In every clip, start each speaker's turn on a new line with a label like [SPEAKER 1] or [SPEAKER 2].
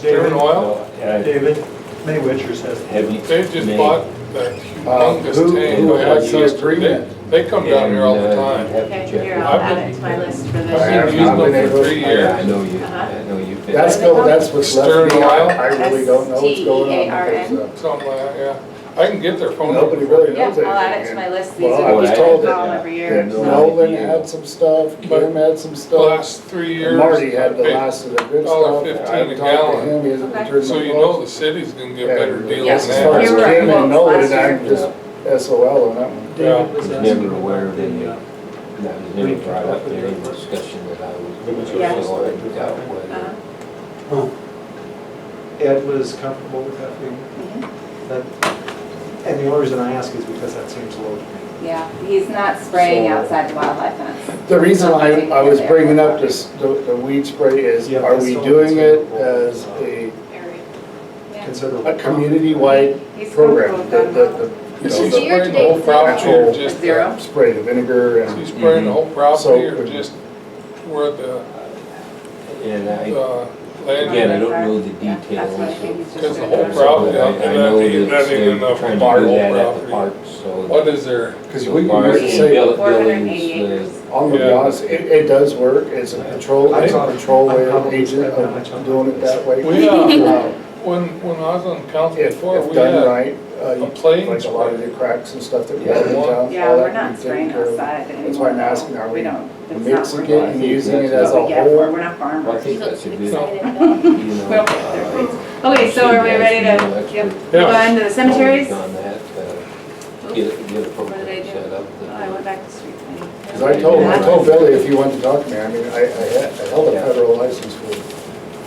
[SPEAKER 1] David Oil?
[SPEAKER 2] Yeah,
[SPEAKER 3] David Maywitchers has,
[SPEAKER 2] Have you?
[SPEAKER 1] They just
[SPEAKER 2] made-
[SPEAKER 1] bought that humongous
[SPEAKER 4] who-
[SPEAKER 1] tank.
[SPEAKER 4] who
[SPEAKER 1] of
[SPEAKER 4] had the
[SPEAKER 1] access to-
[SPEAKER 4] agreement?
[SPEAKER 1] They they come down here all the
[SPEAKER 2] And, uh,
[SPEAKER 1] time.
[SPEAKER 2] have to
[SPEAKER 5] Okay,
[SPEAKER 2] check.
[SPEAKER 5] here, I'll add it to my list for this
[SPEAKER 1] I've been
[SPEAKER 4] I've
[SPEAKER 5] year.
[SPEAKER 4] not been
[SPEAKER 1] using them
[SPEAKER 4] able
[SPEAKER 1] for
[SPEAKER 4] to
[SPEAKER 1] three
[SPEAKER 4] find
[SPEAKER 2] I
[SPEAKER 1] years.
[SPEAKER 2] know you,
[SPEAKER 5] Uh-huh.
[SPEAKER 2] I know you've been.
[SPEAKER 4] That's the, that's what's left me,
[SPEAKER 1] Stern
[SPEAKER 4] I I really don't know what's going on.
[SPEAKER 5] S T E A R
[SPEAKER 4] because, uh,
[SPEAKER 5] N.
[SPEAKER 1] Something like that, yeah. I can get their phone number.
[SPEAKER 4] Nobody
[SPEAKER 1] for you.
[SPEAKER 4] really
[SPEAKER 5] Yeah,
[SPEAKER 4] knows
[SPEAKER 5] I'll
[SPEAKER 4] anything.
[SPEAKER 5] add it to my list, these
[SPEAKER 4] Well,
[SPEAKER 2] I
[SPEAKER 5] are
[SPEAKER 2] was
[SPEAKER 5] the
[SPEAKER 2] told
[SPEAKER 5] people
[SPEAKER 2] that,
[SPEAKER 5] that call
[SPEAKER 2] yeah.
[SPEAKER 5] every
[SPEAKER 4] uh,
[SPEAKER 5] year.
[SPEAKER 2] Yeah,
[SPEAKER 5] so-
[SPEAKER 4] Nolan had some stuff, Kim had some stuff,
[SPEAKER 1] Last three years.
[SPEAKER 4] Marty had the
[SPEAKER 1] I paid-
[SPEAKER 4] last of the good
[SPEAKER 1] dollar
[SPEAKER 4] stuff.
[SPEAKER 1] fifteen
[SPEAKER 4] I
[SPEAKER 1] a
[SPEAKER 4] talked
[SPEAKER 1] gallon.
[SPEAKER 4] to him, he hasn't
[SPEAKER 5] Okay.
[SPEAKER 4] returned
[SPEAKER 1] So
[SPEAKER 4] my
[SPEAKER 1] you
[SPEAKER 4] calls.
[SPEAKER 1] know the city's gonna get
[SPEAKER 4] Yeah,
[SPEAKER 1] better
[SPEAKER 5] Yeah.
[SPEAKER 1] deals
[SPEAKER 4] As far
[SPEAKER 1] than
[SPEAKER 4] as
[SPEAKER 5] You're
[SPEAKER 1] that.
[SPEAKER 5] right.
[SPEAKER 4] Kim
[SPEAKER 5] Well,
[SPEAKER 4] and Nolan,
[SPEAKER 5] last
[SPEAKER 4] I'm
[SPEAKER 5] year-
[SPEAKER 4] just SOL on that one.
[SPEAKER 3] David
[SPEAKER 2] I
[SPEAKER 3] was
[SPEAKER 2] was
[SPEAKER 3] asking.
[SPEAKER 2] never aware of any, that was never brought up in any discussion that I was.
[SPEAKER 5] Yeah.
[SPEAKER 2] so I doubt whether-
[SPEAKER 5] Uh-huh.
[SPEAKER 3] Ed was comfortable with that figure.
[SPEAKER 5] Mhm.
[SPEAKER 3] That- And the only reason I ask is because that seems low to me.
[SPEAKER 5] Yeah, he's not spraying
[SPEAKER 4] So-
[SPEAKER 5] outside the wildlife fence.
[SPEAKER 4] The reason I, I was bringing up this, the the weed spray is,
[SPEAKER 3] Yeah,
[SPEAKER 4] are
[SPEAKER 3] that's
[SPEAKER 4] we
[SPEAKER 3] all
[SPEAKER 4] doing it
[SPEAKER 3] that's
[SPEAKER 4] as
[SPEAKER 3] available.
[SPEAKER 4] a,
[SPEAKER 5] Yeah.
[SPEAKER 3] Considerable.
[SPEAKER 4] a community-wide
[SPEAKER 5] He's comfortable
[SPEAKER 4] program?
[SPEAKER 5] with
[SPEAKER 4] The,
[SPEAKER 5] that.
[SPEAKER 4] the,
[SPEAKER 5] amount.
[SPEAKER 4] the, you
[SPEAKER 1] Is
[SPEAKER 4] know,
[SPEAKER 1] he
[SPEAKER 4] the
[SPEAKER 1] spraying the whole property or
[SPEAKER 4] actual
[SPEAKER 1] just? the-
[SPEAKER 5] Zero?
[SPEAKER 4] spray, the vinegar
[SPEAKER 1] Is he
[SPEAKER 4] and,
[SPEAKER 1] spraying the whole property or
[SPEAKER 4] Mm-hmm. So-
[SPEAKER 1] just where the,
[SPEAKER 2] And I,
[SPEAKER 1] uh, land?
[SPEAKER 2] again, I don't know the
[SPEAKER 5] Yeah, that's what I think
[SPEAKER 2] details.
[SPEAKER 5] he's just
[SPEAKER 1] Because the
[SPEAKER 5] gonna
[SPEAKER 1] whole
[SPEAKER 5] do.
[SPEAKER 1] problem,
[SPEAKER 2] but I- I know
[SPEAKER 1] that
[SPEAKER 2] that
[SPEAKER 1] ain't- that ain't
[SPEAKER 2] they're
[SPEAKER 1] enough
[SPEAKER 2] trying to
[SPEAKER 1] bar
[SPEAKER 2] do
[SPEAKER 1] whole
[SPEAKER 2] that at the
[SPEAKER 1] property.
[SPEAKER 2] park, so.
[SPEAKER 1] What is there?
[SPEAKER 4] because
[SPEAKER 2] so
[SPEAKER 4] we can
[SPEAKER 2] bars
[SPEAKER 4] really
[SPEAKER 2] and
[SPEAKER 4] say,
[SPEAKER 2] bill-
[SPEAKER 5] 480
[SPEAKER 2] buildings,
[SPEAKER 5] acres.
[SPEAKER 4] I'm gonna be
[SPEAKER 1] Yeah.
[SPEAKER 4] honest, it, it does work, it's a patrol,
[SPEAKER 3] I
[SPEAKER 4] it's
[SPEAKER 3] thought-
[SPEAKER 4] a patrol
[SPEAKER 3] I
[SPEAKER 4] uh,
[SPEAKER 3] probably
[SPEAKER 4] agent,
[SPEAKER 3] spent that much
[SPEAKER 4] of
[SPEAKER 3] on
[SPEAKER 4] doing it that way.
[SPEAKER 1] We, uh,
[SPEAKER 4] Uh,
[SPEAKER 1] When, when I was on council
[SPEAKER 4] If,
[SPEAKER 1] before,
[SPEAKER 4] if
[SPEAKER 1] we had
[SPEAKER 4] done right, uh,
[SPEAKER 1] a plane
[SPEAKER 4] you, like a lot of the cracks and stuff that we have in
[SPEAKER 1] Yeah.
[SPEAKER 4] town. all
[SPEAKER 5] Yeah, we're
[SPEAKER 4] that
[SPEAKER 5] not
[SPEAKER 4] we take
[SPEAKER 5] spraying
[SPEAKER 4] care of.
[SPEAKER 5] outside anymore.
[SPEAKER 4] That's why I'm asking, are
[SPEAKER 5] though.
[SPEAKER 4] we
[SPEAKER 5] don't, it's
[SPEAKER 4] Mixing
[SPEAKER 5] not
[SPEAKER 4] it
[SPEAKER 5] working.
[SPEAKER 4] and using it
[SPEAKER 2] that's
[SPEAKER 4] as a
[SPEAKER 5] But yeah, we're,
[SPEAKER 4] whole.
[SPEAKER 5] we're not farmers.
[SPEAKER 2] I think that's a good, you know.
[SPEAKER 6] Excited.
[SPEAKER 2] uh,
[SPEAKER 5] Okay, so are we ready
[SPEAKER 2] Well,
[SPEAKER 5] to
[SPEAKER 2] that's
[SPEAKER 5] give-
[SPEAKER 2] good.
[SPEAKER 5] go into the cemeteries? Oh,
[SPEAKER 2] On that, uh, get, a- get a
[SPEAKER 5] What
[SPEAKER 2] program
[SPEAKER 5] did I do?
[SPEAKER 2] set up.
[SPEAKER 5] I went back to street cleaning.
[SPEAKER 4] Cause I told, I told Billy if you wanted to talk to me, I mean, I, I had, I held a federal license for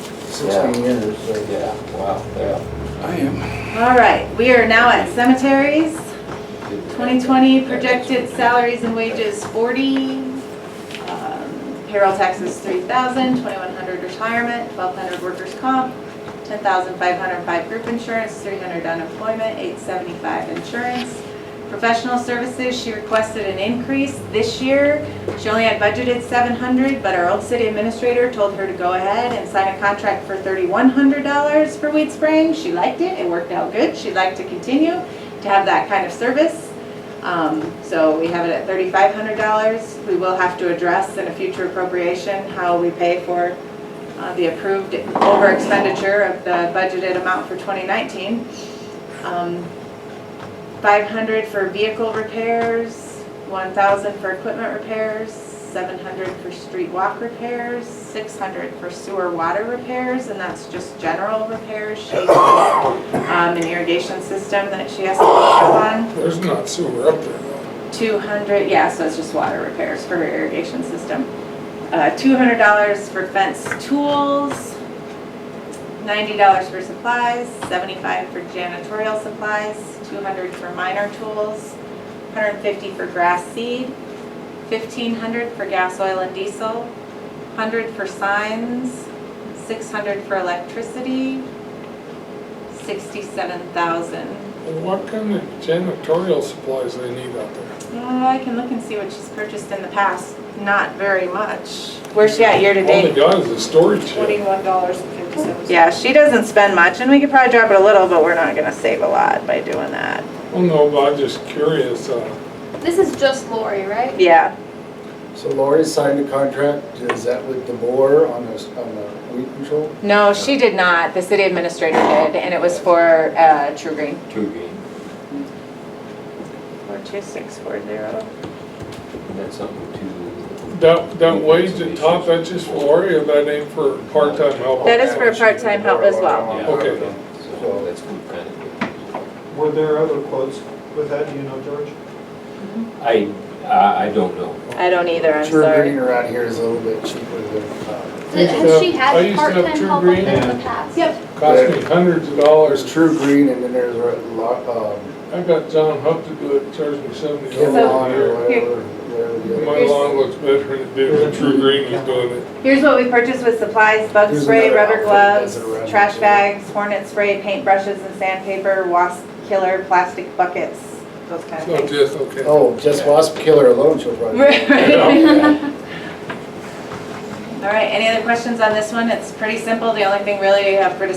[SPEAKER 4] sixteen years, so.
[SPEAKER 2] Yeah, wow, yeah.
[SPEAKER 5] All right, we are now at cemeteries.
[SPEAKER 2] Good.
[SPEAKER 5] 2020 projected salaries and wages 40, um, payroll taxes 3,000, 2,100 retirement, 1,200 workers' comp, 10,505 group insurance, 300 unemployment, 875 insurance. Professional services, she requested an increase this year. She only had budgeted 700, but our old city administrator told her to go ahead and sign a contract for $3,100 for weed spraying. She liked it, it worked out good, she'd like to continue to have that kind of service. Um, So we have it at thirty-five hundred dollars. We will have to address in a future appropriation how we pay for uh, the approved over expenditure of the budgeted amount for twenty nineteen. Um, Five hundred for vehicle repairs, one thousand for equipment repairs, seven hundred for street walk repairs, six hundred for sewer water repairs, and that's just general repairs. She um, an irrigation system that she has to work on.
[SPEAKER 1] There's not sewer up there though.
[SPEAKER 5] Two hundred, yeah, so it's just water repairs for her irrigation system. Uh, two hundred dollars for fence tools, ninety dollars for supplies, seventy-five for janitorial supplies, two hundred for minor tools, hundred and fifty for grass seed, fifteen hundred for gas, oil, and diesel, hundred for signs, six hundred for electricity, sixty-seven thousand
[SPEAKER 1] And What kind of janitorial supplies they need out there?
[SPEAKER 5] Uh, I can look and see what she's purchased in the past. Not very much. Where's she at year to
[SPEAKER 1] All they
[SPEAKER 5] date?
[SPEAKER 1] got is a storage shed.
[SPEAKER 6] Twenty-one dollars and fifty-seven cents.
[SPEAKER 5] Yeah, she doesn't spend much, and we could probably drop it a little, but we're not gonna save a lot by doing that.
[SPEAKER 1] Well, no, but I'm just curious, uh,
[SPEAKER 6] This is just Lori, right?
[SPEAKER 5] Yeah,
[SPEAKER 4] So Lori signed a contract, is that with DeBoer on this, on the weed control?
[SPEAKER 5] no, she did not. The city administrator did, and it was for, uh, True Green.
[SPEAKER 2] Two green,
[SPEAKER 5] Four two six four zero.
[SPEAKER 2] and that's something to.
[SPEAKER 1] that, that wage at top, that's just for Lori or that ain't for part-time help?
[SPEAKER 5] That is for part-time help as well.
[SPEAKER 2] Yeah.
[SPEAKER 1] Okay.
[SPEAKER 2] So that's good kind of.
[SPEAKER 3] Were there other quotes with that, do you know, George?
[SPEAKER 2] I, I I don't know.
[SPEAKER 5] I don't either, I'm
[SPEAKER 4] Sure,
[SPEAKER 5] sorry.
[SPEAKER 4] green around here is a little bit cheaper than, uh,
[SPEAKER 1] I used to
[SPEAKER 6] Has she
[SPEAKER 1] have- I
[SPEAKER 6] had
[SPEAKER 1] used to have
[SPEAKER 6] part-time
[SPEAKER 1] True
[SPEAKER 6] help up
[SPEAKER 1] Green
[SPEAKER 6] there in
[SPEAKER 3] and-
[SPEAKER 6] the past?
[SPEAKER 5] Yep.
[SPEAKER 1] Cost me hundreds of
[SPEAKER 4] there's
[SPEAKER 1] dollars.
[SPEAKER 4] true green and then there's a lot, um,
[SPEAKER 1] I got John Huff to do it, charged me seventy
[SPEAKER 4] Kim
[SPEAKER 1] dollars
[SPEAKER 4] Lawn
[SPEAKER 1] a
[SPEAKER 4] or
[SPEAKER 1] year.
[SPEAKER 4] whatever, whatever. the other-
[SPEAKER 1] My lawn looks better than it did when True Green was doing it.
[SPEAKER 5] Here's what we purchased with supplies, bug
[SPEAKER 4] Here's
[SPEAKER 5] spray,
[SPEAKER 4] another outfit
[SPEAKER 5] rubber gloves,
[SPEAKER 4] that's around
[SPEAKER 5] trash
[SPEAKER 4] here.
[SPEAKER 5] bags, hornet spray, paint brushes and sandpaper, wasp killer, plastic buckets, those kind of
[SPEAKER 1] So
[SPEAKER 5] things.
[SPEAKER 1] just, okay.
[SPEAKER 4] Oh, just wasp killer alone, she'll probably.
[SPEAKER 5] Right. All right, any other questions on this one? It's pretty simple. The only thing really you have for discussion